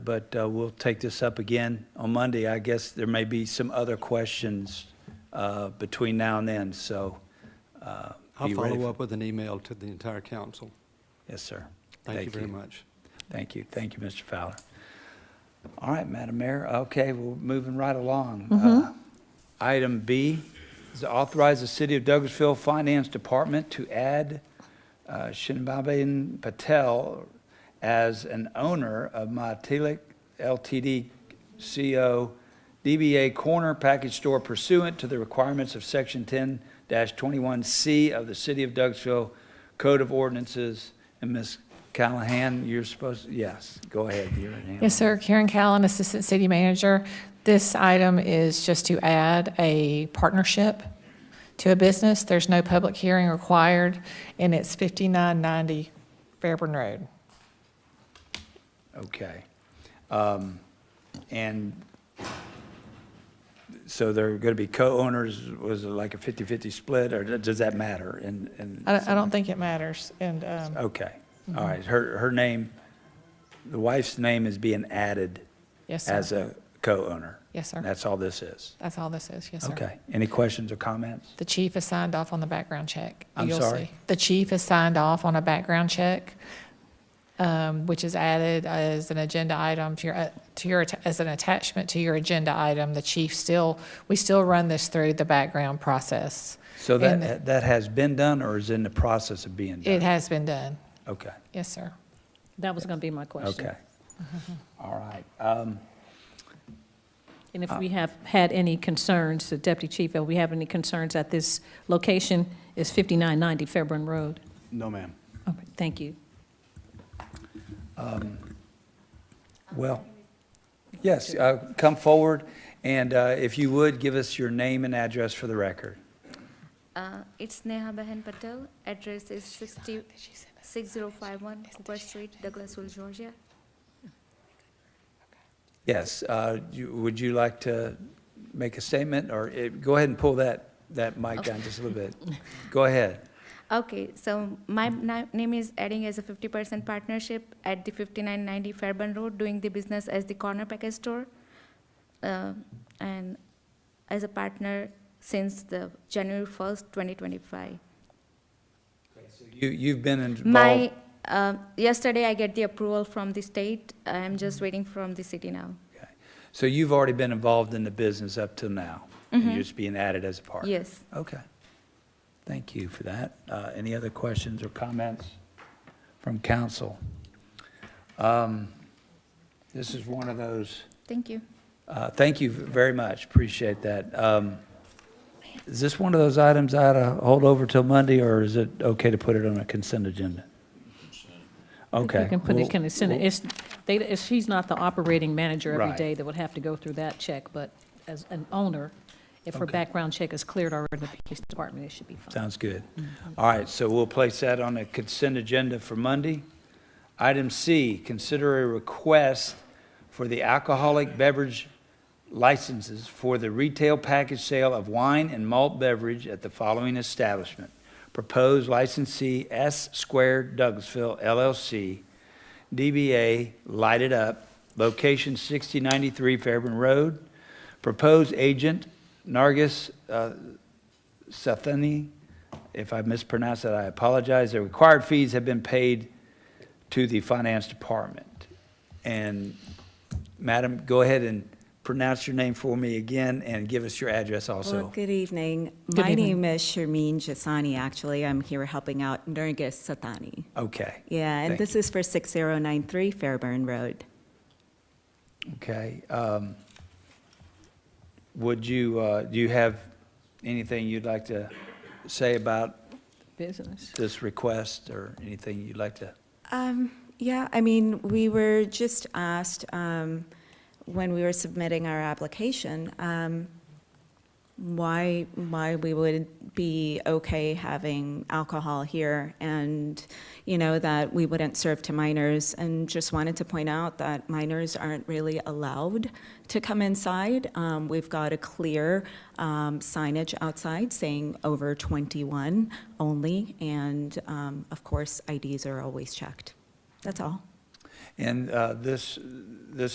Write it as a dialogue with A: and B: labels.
A: But uh, we'll take this up again on Monday. I guess there may be some other questions uh, between now and then, so. uh,
B: I'll
A: be ready
B: follow
A: for-
B: up with an email to the entire council.
A: Yes, sir.
B: Thank you very much.
A: Thank you. Thank you, Mr. Fowler. All right, Madam Mayor. Okay, we're moving right along.
C: Mm-hmm.
A: Uh, Item B is to authorize the City of Douglasville Finance Department to add uh, Shinbabin Patel as an owner of Matilic LTD CO DBA Corner Package Store pursuant to the requirements of Section 10-21C of the City of Douglasville Code of Ordinances. And Ms. Callahan, you're supposed, yes, go ahead. You're in. hand.
C: Yes, sir. Karen Callan, Assistant City Manager. This item is just to add a partnership to a business. There's no public hearing required, and it's 5990 Fairburn Road.
A: Okay. Um, And so they're going to be co-owners, was it like a 50-50 split, or does that matter? And, and.
C: I don't- I don't think it matters, and um,
A: Okay, all right, her, her name, the wife's name is being added
C: Yes, sir.
A: as a co-owner.
C: Yes, sir.
A: That's all this is.
C: That's all this is, yes, sir.
A: Okay, any questions or comments?
C: The chief has signed off on the background check.
A: I'm
C: You'll
A: sorry?
C: see. The chief has signed off on a background check, um, which is added as an agenda item to your, uh, to your, atta- as an attachment to your agenda item. The chief still, we still run this through the background process.
A: So
C: And
A: that, that has been done or is in the process of being
C: It
A: done?
C: has been done.
A: Okay.
C: Yes, sir.
D: That was going to be my question.
A: Okay.
C: Mm-hmm.
A: All right. Um,
D: And
A: Uh,
D: if we have had any concerns, the Deputy Chief, if we have any concerns at this location, is 5990 Fairburn Road.
A: No, ma'am.
D: Okay, Thank you.
A: Well, yes, uh, come forward, and uh, if you would, give us your name and address for the record.
E: Uh, It's Neha Behan Patel. Address is 60 6051 Cooper Street, Douglasville, Georgia.
A: Yes, uh, you- would you like to make a statement, or eh, go ahead and pull that, that mic down just a little bit? Go ahead.
E: Okay, so my na- name is adding as a 50% partnership at the 5990 Fairburn Road, doing the business as the Corner Package Store. uh, And as a partner since the January 1st, 2025.
A: You, you've been involved.
E: My, uh, yesterday I get the approval from the state. I'm just waiting from the city now.
A: Okay. So you've already been involved in the business up till now? and You're just being added as a partner?
E: Mm-hmm. Yes.
A: Okay. Thank you for that. Uh, Any other questions or comments from council? Um, This is one of those,
E: Thank you.
A: uh, thank you very much, appreciate that. Um, Is this one of those items I ought to hold over till Monday, or is it okay to put it on a consent agenda? Okay.
D: You can put
A: we'll-
D: it, can it, send it-
A: we'll-
D: it's, they, it's- she's not the operating manager every
A: Right.
D: day that would have to go through that check, but as an owner, if her
A: Okay.
D: background check is cleared already in the police department, it should be fine.
A: Sounds good. All right, so we'll place that on the consent agenda for Monday. Item C, consider a request for the alcoholic beverage licenses for the retail package sale of wine and malt beverage at the following establishment. Proposed licensee S Squared Douglasville LLC, DBA Light It Up, location 6093 Fairburn Road. Proposed agent Nargis uh, Sethany, if I mispronounced that, I apologize. The required fees have been paid to the finance department. And madam, go ahead and pronounce your name for me again and give us your address
F: Well,
A: also.
F: good evening.
D: Good
F: My
D: evening.
F: name is Sharmeen Jasani, actually. I'm here helping out Nergis Satani.
A: Okay,
F: Yeah,
A: Thank
F: and this is for 6093 Fairburn Road.
A: okay. Um, Would you, uh, do you have anything you'd like to say about
D: Business.
A: this request or anything you'd like to?
F: Um, Yeah, I mean, we were just asked um, when we were submitting our application, um, why, why we would be okay having alcohol here and, you know, that we wouldn't serve to minors. And just wanted to point out that minors aren't really allowed to come inside. Um, We've got a clear um, signage outside saying over 21 only. And um, of course, IDs are always checked. That's all.
A: And uh, this, this